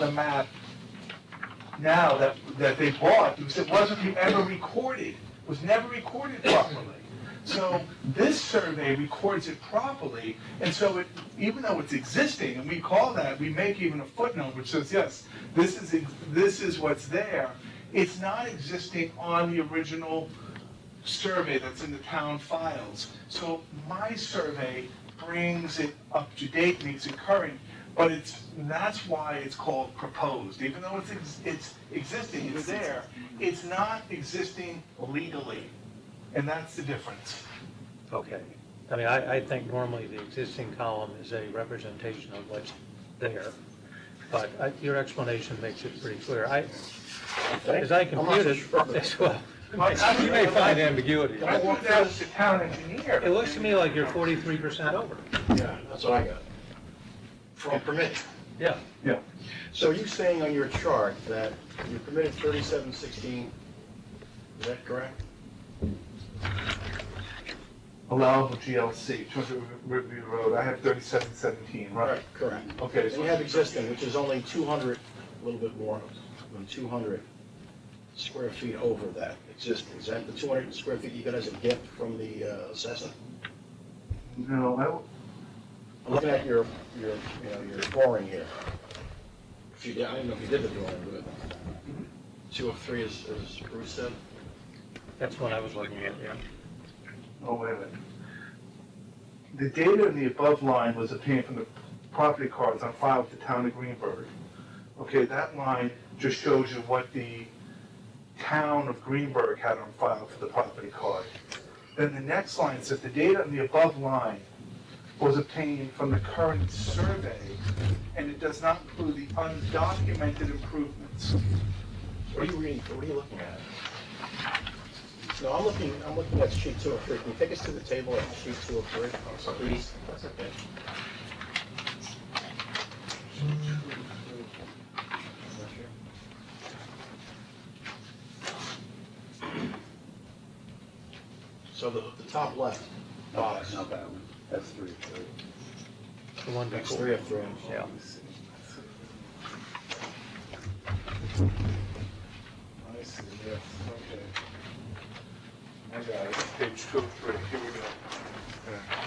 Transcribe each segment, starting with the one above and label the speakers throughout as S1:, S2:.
S1: the map now that, that they bought, because it wasn't re- ever recorded, was never recorded properly. So this survey records it properly, and so it, even though it's existing, and we call that, we make even a footnote which says, yes, this is, ex- this is what's there, it's not existing on the original survey that's in the town files. So my survey brings it up to date, makes it current, but it's, that's why it's called proposed. Even though it's, ex- it's existing, it's there, it's not existing legally, and that's the difference.
S2: Okay. I mean, I, I think normally the existing column is a representation of what's there, but I- your explanation makes it pretty clear. I, as I compute it, as well,
S3: You may find ambiguity.
S1: I thought that was the town engineer.
S2: it looks to me like you're forty-three percent over.
S3: Yeah, that's what I got. From permit.
S2: Yeah.
S1: Yeah.
S3: So you saying on your chart that you permitted thirty-seven sixteen, is that correct?
S1: Allowable GLC, 200 Riverview Road, I have 3717, right?
S3: Correct.
S1: Okay,
S3: And you
S1: so,
S3: have existing, which is only two hundred, a little bit more than two hundred square feet over that existing. Is that the two hundred square feet you got as a gift from the uh, assessor?
S1: no, I w-
S3: I'm looking at your, your, you know, your drawing here. If you, did- I didn't know if you did the drawing, but two of three is, is Bruce said.
S2: That's what I was looking at, yeah.
S1: Oh, wait a minute. The data in the above line was obtained from the property cards on file with the town of Greenberg. Okay, that line just shows you what the town of Greenberg had on file for the property card. Then the next line says the data in the above line was obtained from the current survey, and it does not include the undocumented improvements.
S3: What are you reading, what are you looking at? No, I'm looking, I'm looking at sheet two of three. Can you take us to the table at sheet two of three, please? That's okay. So the, the top left box,
S4: Not that one. That's three, three.
S2: The one
S3: next three
S2: before.
S3: of three.
S2: Yeah.
S1: I see, yes, okay. I got it, page two, three, here we go.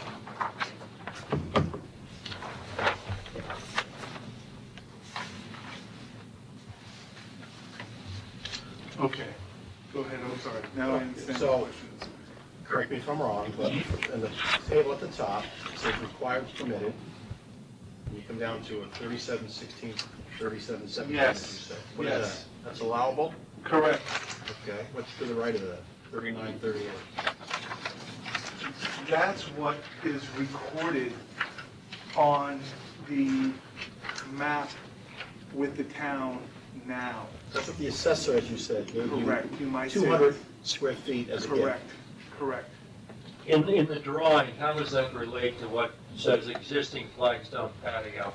S1: Okay, go ahead, I'm sorry, now I understand the
S3: So-
S1: questions.
S3: correct me if I'm wrong, but in the table at the top, it says required permitted. And you come down to a thirty-seven sixteen, thirty-seven seventeen.
S1: Yes.
S3: What is
S1: Yes.
S3: that? That's allowable?
S1: Correct,
S3: Okay, what's to the right of that? Thirty-nine, thirty-eight.
S1: that's what is recorded on the map with the town now.
S3: That's what the assessor, as you said, gave you
S1: Correct, you might say.
S3: two hundred square feet as a gift.
S1: Correct, correct.
S5: In, in the drawing, how does that relate to what says existing flagstone patio?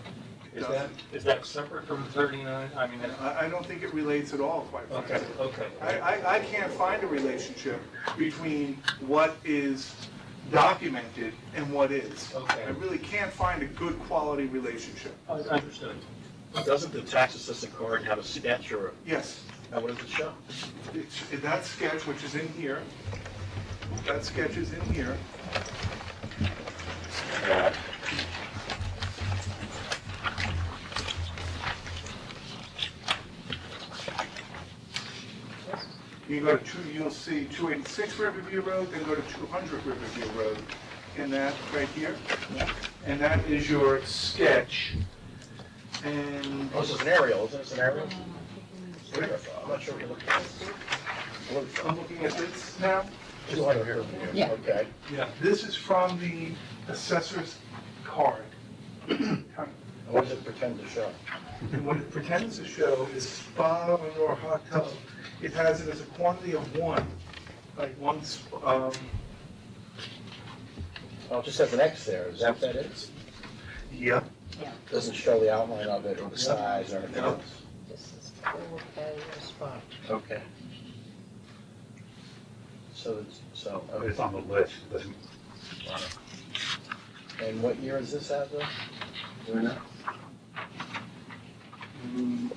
S5: Is that, is that separate from 39? I mean, that-
S1: I, I don't think it relates at all, quite
S5: okay,
S1: frankly.
S5: okay.
S1: I, I, I can't find a relationship between what is documented and what is.
S5: Okay.
S1: I really can't find a good quality relationship.
S5: I- Understood.
S3: Doesn't the tax assessment card have a sketch or,
S1: Yes,
S3: now what does it show?
S1: it's, that sketch, which is in here, that sketch is in here. You go to two, you'll see two eighty-six Riverview Road, then go to two hundred Riverview Road, and that right here. And that is your sketch. And
S3: Oh, this is an aerial, isn't it an aerial? Um, I'm not sure what you're looking at.
S1: I'm looking at this now.
S3: Two hundred here.
S6: Yeah.
S3: Okay.
S1: Yeah, this is from the assessor's card.
S3: And What does it pretend to show?
S1: And what it pretends to show is spa or hot tub. It has it as a quantity of one, like one, sp- um,
S3: Oh, it just has an X there, is that what that is?
S1: yep.
S3: Doesn't show the outline of it or the size or anything
S1: No.
S3: else?
S6: This is full failure spot.
S3: Okay. So, it's- so,
S4: It's
S3: okay.
S4: on the list, doesn't.
S3: and what year is this out of? Do we know?